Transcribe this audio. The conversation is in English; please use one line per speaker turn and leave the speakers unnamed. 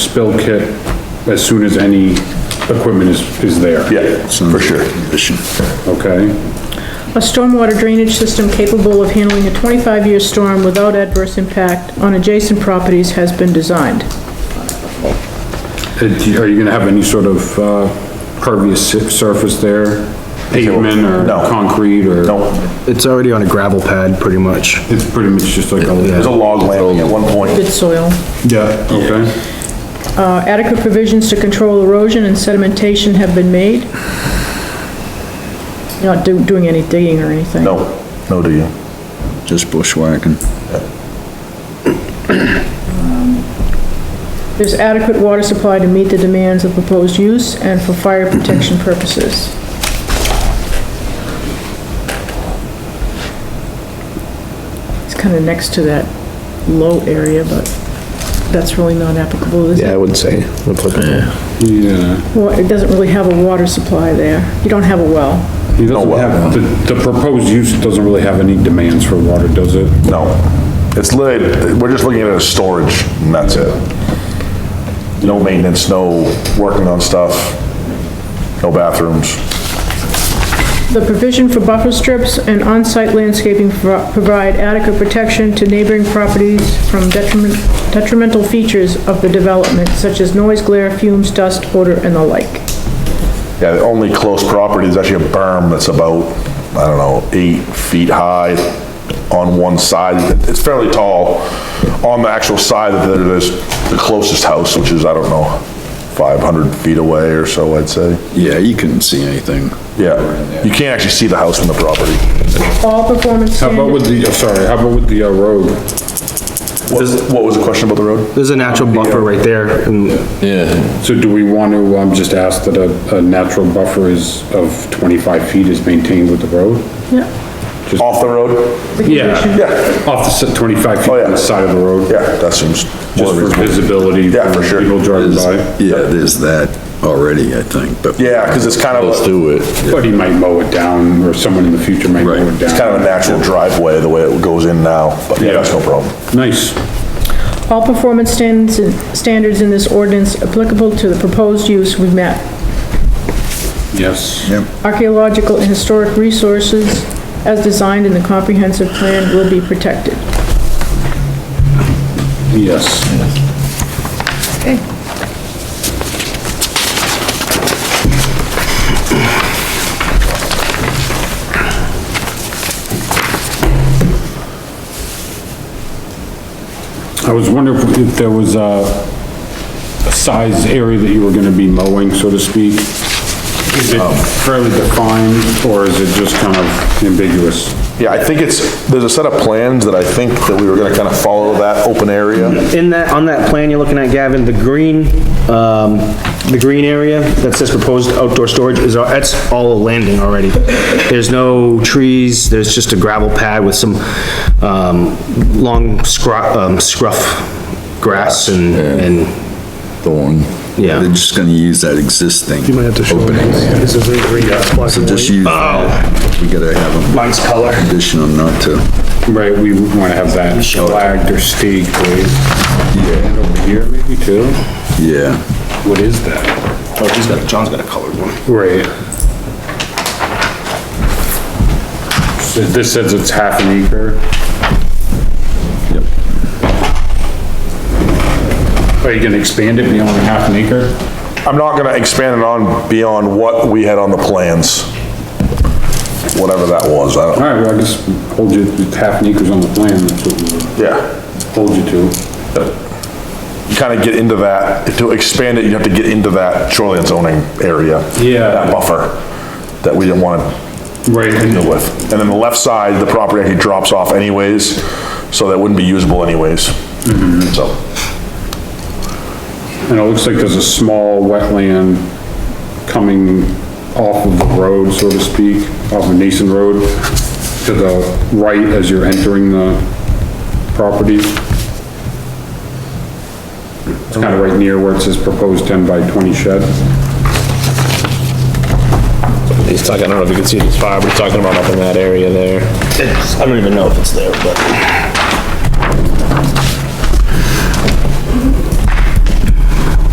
spill kit as soon as any equipment is, is there.
Yeah, for sure.
Okay,
A stormwater drainage system capable of handling a 25-year storm without adverse impact on adjacent properties has been designed.
Uh, do you- are you gonna have any sort of, uh, pervious si- surface there? Pavement or
No.
concrete or?
No,
It's already on a gravel pad, pretty much.
It's pretty much just like
there's
a,
a log landing at one point.
Good soil.
Yeah.
okay?
Uh, Adequate provisions to control erosion and sedimentation have been made. Not do- doing any digging or anything.
No, no, do you?
Just bushwhacking.
There's adequate water supply to meet the demands of proposed use and for fire protection purposes. It's kind of next to that low area, but that's really not applicable, is it?
Yeah, I would say. applicable.
Yeah.
Well, it doesn't really have a water supply there. You don't have a well.
He doesn't
well.
have, the, the proposed use doesn't really have any demands for water, does it?
No. It's literally, we're just looking at it as storage, and that's it. No maintenance, no working on stuff, no bathrooms.
The provision for buffer strips and on-site landscaping pro- provide adequate protection to neighboring properties from detriment- detrimental features of the development, such as noise, glare, fumes, dust, odor, and the like.
Yeah, the only close property is actually a berm that's about, I don't know, eight feet high on one side. It's fairly tall on the actual side that it is the closest house, which is, I don't know, 500 feet away or so, I'd say.
Yeah, you couldn't see anything.
Yeah, you can't actually see the house from the property.
All performance
How about with
standards,
the, oh, sorry, how about with the uh, road?
What what was the question about the road?
There's a natural buffer right there, and
Yeah.
So do we want to, um, just ask that a, a natural buffer is of twenty-five feet is maintained with the road?
yeah,
Off the road?
the condition,
Yeah,
Off the s- twenty-five feet
Oh, yeah.
on the side of the road?
yeah, that seems.
Just for visibility?
Yeah, for sure.
People driving by,
Yeah, there's that already, I think, but.
Yeah, because it's kind of,
Let's
a-
do it.
but he might mow it down, or someone in the future might mow
Right.
it
it's kind
down.
of a natural driveway, the way it goes in now, but yeah, that's no problem.
Nice,
all performance standards, in- standards in this ordinance applicable to the proposed use we've met.
yes.
Yep.
Archaeological and historic resources as designed in the comprehensive plan will be protected.
Yes. I was wondering if- if there was a, a size area that you were gonna be mowing, so to speak? Is
Um.
it fairly defined, or is it just kind of ambiguous?
Yeah, I think it's, there's a set of plans that I think that we were gonna kind of follow that open area.
in that, on that plan you're looking at, Gavin, the green, um, the green area that says proposed outdoor storage is, all- that's all a landing already. There's no trees, there's just a gravel pad with some, um, long scruff, um, scruff grass and, and,
Thorn.
Yeah.
They're just gonna use that existing. You might have to show. Opening there.
This is a uh, green, it's black
So
and
just
white.
use that. We gotta have them. Oh. Mine's color. Condition them not to.
Right, we wanna have that flagged or staked, right? And over here maybe too?
Yeah.
What is that?
oh, he's got, John's got a colored one.
Right. So This says it's half an acre?
Yep.
Are you gonna expand it beyond half an acre?
I'm not gonna expand it on beyond what we had on the plans. Whatever that was, I don't,
All right, well, I just hold you, half an acre's on the plan, that's what we
yeah.
hold you to.
You kind of get into that, to expand it, you have to get into that shoreline zoning area.
Yeah.
That buffer that we didn't want
Right.
to deal with. And then the left side, the property actually drops off anyways, so that wouldn't be usable anyways. So,
And it looks like there's a small wetland coming off of the road, so to speak, off of Nason Road, to the right as you're entering the property. It's kind of right near where it says proposed 10 by 20 shed.
He's talking, I don't know if you can see this fire, but he's talking about up in that area there.
It's, I don't even know if it's there, but.